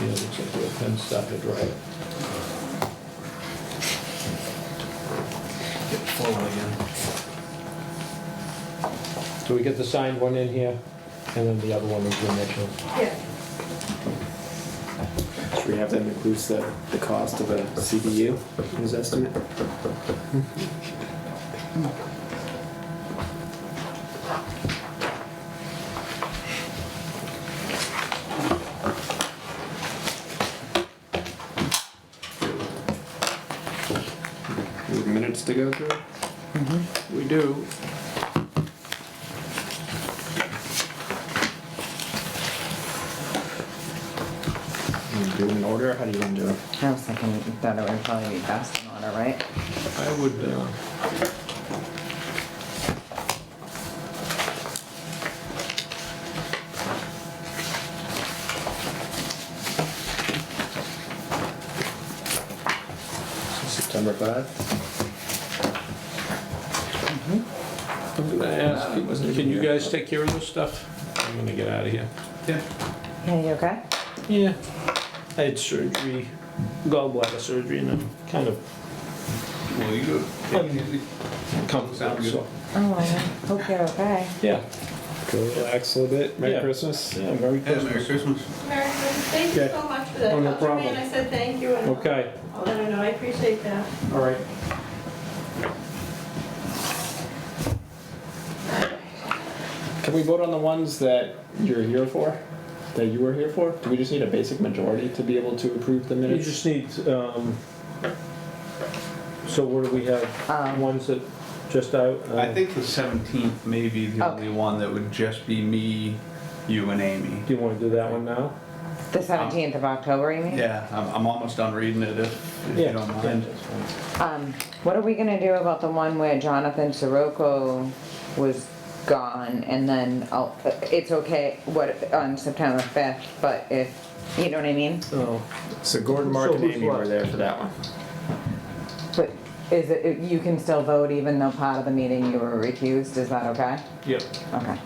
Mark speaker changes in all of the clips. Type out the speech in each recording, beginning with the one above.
Speaker 1: Yeah, looks like the pen started right.
Speaker 2: Get flowing again.
Speaker 1: So we get the signed one in here, and then the other one is the next one.
Speaker 3: Yeah,
Speaker 4: Should we have that includes the, the cost of a CBU in his estimate? We have Minutes to go through? We do. You Do it in order, how do you want to do it?
Speaker 5: I was thinking that it would probably be best in order, right?
Speaker 4: I would, uh. September five?
Speaker 1: I'm gonna ask, can you guys take care of this stuff? I'm gonna get out of here.
Speaker 2: Yeah.
Speaker 5: Yeah, you okay?
Speaker 1: Yeah, I had surgery, gallbladder surgery, and I'm kind of
Speaker 2: Well, you do. it. Sounds
Speaker 1: comfortable,
Speaker 2: good.
Speaker 1: so.
Speaker 5: Oh, I hope you're okay.
Speaker 1: Yeah,
Speaker 4: Go relax a little bit,
Speaker 1: Yeah.
Speaker 4: Merry Christmas.
Speaker 1: yeah, very
Speaker 2: Yeah, Merry
Speaker 1: good.
Speaker 2: Christmas.
Speaker 3: Mary, thank you so much for that.
Speaker 1: Oh, no
Speaker 3: Talk to me,
Speaker 1: problem.
Speaker 3: And I said thank you, and
Speaker 1: Okay,
Speaker 3: I'll let her know, I appreciate that.
Speaker 1: all right.
Speaker 4: Can we vote on the ones that you're here for, that you were here for? Do we just need a basic majority to be able to approve the
Speaker 1: You
Speaker 4: minutes?
Speaker 1: just need, um, so what do we have?
Speaker 5: Um,
Speaker 1: Ones that just out? uh,
Speaker 2: I think the seventeenth may be the
Speaker 5: Okay.
Speaker 2: only one that would just be me, you and Amy.
Speaker 1: Do you wanna do that one now?
Speaker 5: The seventeenth of October, you mean?
Speaker 2: Yeah, I'm, I'm almost done reading it if, if
Speaker 1: Yeah,
Speaker 2: you don't
Speaker 1: yeah,
Speaker 2: mind.
Speaker 1: that's fine.
Speaker 5: Um, what are we gonna do about the one where Jonathan Sirocco was gone and then, oh, it's okay, what, on September fifth, but if, you know what I mean?
Speaker 1: Oh,
Speaker 4: So Gordon, Mark,
Speaker 1: So
Speaker 4: and
Speaker 1: who's
Speaker 4: Amy were
Speaker 1: left?
Speaker 4: there for that one.
Speaker 5: But is it, you can still vote even though part of the meeting you were recused, is that okay?
Speaker 1: yep.
Speaker 5: Okay.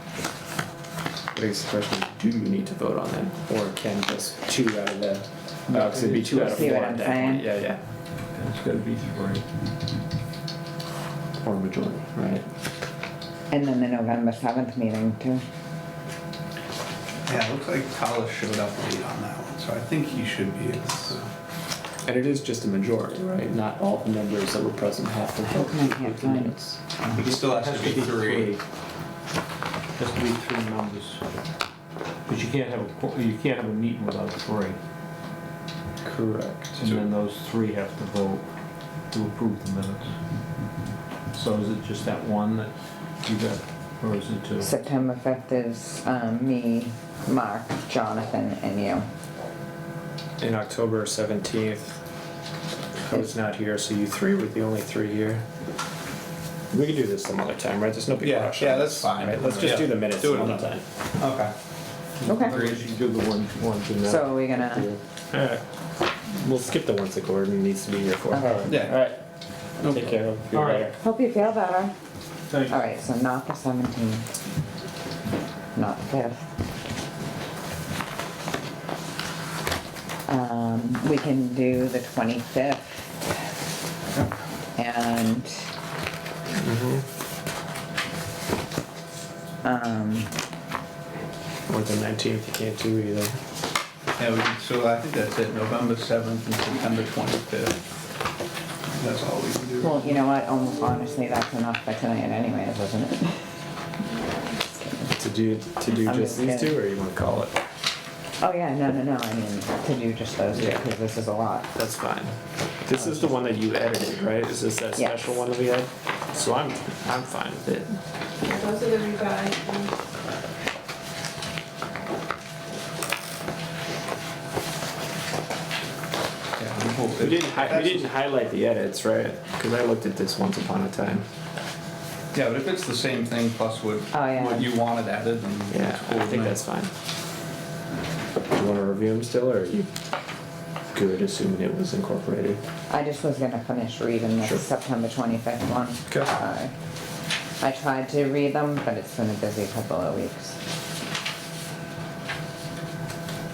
Speaker 4: Raises the question, do you need to vote on that, or can just two out of the, no, cause it'd be two out of
Speaker 5: See
Speaker 4: four
Speaker 5: what
Speaker 4: at
Speaker 5: I'm
Speaker 4: that point,
Speaker 5: saying?
Speaker 4: yeah, yeah.
Speaker 1: It's gotta be three.
Speaker 4: Or majority, right?
Speaker 5: And then the November seventh meeting too.
Speaker 2: Yeah, it looks like Collis showed up late on that one, so I think he should be able to.
Speaker 4: And it is just a majority, right? Not all the members that were present have to vote.
Speaker 5: I can't
Speaker 4: with the
Speaker 5: find it.
Speaker 4: minutes.
Speaker 2: It still has to be three.
Speaker 1: Has to be three members. But you can't have, a qu- you can't have a meeting without three.
Speaker 4: Correct.
Speaker 1: And then those three have to vote to approve the minutes. So is it just that one that you got, or is it two?
Speaker 5: September fifth is, um, me, Mark, Jonathan, and you.
Speaker 4: In October seventeenth, I was not here, so you three were the only three here. We could do this some other time, right? There's no big
Speaker 2: Yeah,
Speaker 4: rush.
Speaker 2: yeah,
Speaker 4: on
Speaker 2: that's
Speaker 4: this,
Speaker 2: fine.
Speaker 4: right? Let's just
Speaker 2: Yeah.
Speaker 4: do the minutes
Speaker 2: Do it
Speaker 4: another
Speaker 2: another
Speaker 4: time.
Speaker 2: Okay.
Speaker 5: Okay.
Speaker 1: Or is you do the one, one to
Speaker 5: So are we gonna,
Speaker 4: Alright, we'll skip the ones that Gordon needs to be here for.
Speaker 5: Okay.
Speaker 2: Yeah.
Speaker 4: Alright. Take care of.
Speaker 1: All right.
Speaker 5: hope you feel better.
Speaker 1: Thank you.
Speaker 5: Alright, so not the seventeenth. Not the fifth. Um, we can do the twenty-fifth. And. Um,
Speaker 4: Or the nineteenth, you can't do either.
Speaker 2: Yeah, we, can- so I think that's it, November seventh and September twenty-fifth. That's all we can do.
Speaker 5: well, you know what, almost honestly, that's enough for tonight anyways, isn't it?
Speaker 4: To do, to do
Speaker 5: I'm just
Speaker 4: just these
Speaker 5: kidding.
Speaker 4: two, or you wanna call it?
Speaker 5: Oh, yeah, no, no, no, I mean, to do just those two,
Speaker 4: Yeah.
Speaker 5: because this is a lot.
Speaker 4: That's fine. This is the one that you edited, right? Is this that
Speaker 5: Yes.
Speaker 4: special one that we had? So I'm, I'm fine with it.
Speaker 3: Yeah, Those are the revised ones.
Speaker 2: Yeah, we hope
Speaker 4: We
Speaker 2: that-
Speaker 4: didn't, hi- we
Speaker 2: that's-
Speaker 4: didn't highlight the edits, right? Cause I looked at this once upon a time.
Speaker 2: Yeah, but if it's the same thing plus what,
Speaker 5: Oh, yeah.
Speaker 2: what you wanted added, then
Speaker 4: Yeah,
Speaker 2: it's cool.
Speaker 4: I
Speaker 2: with
Speaker 4: think
Speaker 2: me.
Speaker 4: that's fine. Do you wanna review them still, or are you good assuming it was incorporated?
Speaker 5: I just was gonna finish reading
Speaker 4: Sure.
Speaker 5: this September twenty-fifth one.
Speaker 4: Okay.
Speaker 5: Uh, I tried to read them, but it's been a busy couple of weeks.